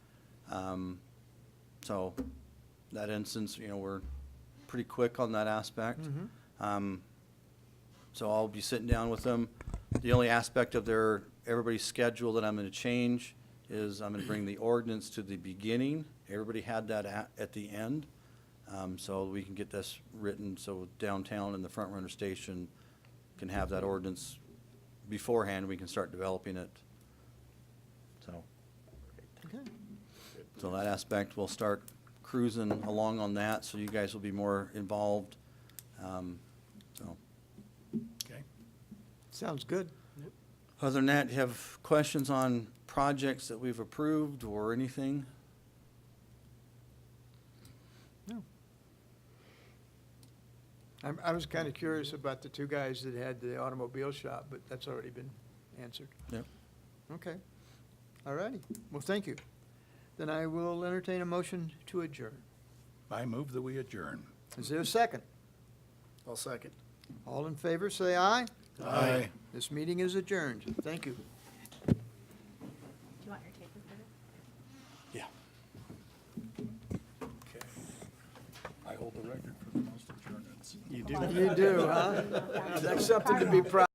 Um, So, that instance, you know, we're pretty quick on that aspect. Um, So I'll be sitting down with them. The only aspect of their, everybody's schedule that I'm gonna change is I'm gonna bring the ordinance to the beginning. Everybody had that at, at the end. Um, so we can get this written, so downtown and the front runner station can have that ordinance beforehand. We can start developing it. So, Okay. so that aspect, we'll start cruising along on that, so you guys will be more involved. Um, so. Okay. Sounds good. Other than that, do you have questions on projects that we've approved or anything? I'm, I was kind of curious about the two guys that had the automobile shop, but that's already been answered. Yep. Okay. All righty. Well, thank you. Then I will entertain a motion to adjourn. I move that we adjourn. Is there a second? I'll second. All in favor, say aye. Aye. This meeting is adjourned. Thank you. Do you want your tape recorded? Okay. I hold the record for the most adjournments. You do Hold on. You do, huh? That's something to be proud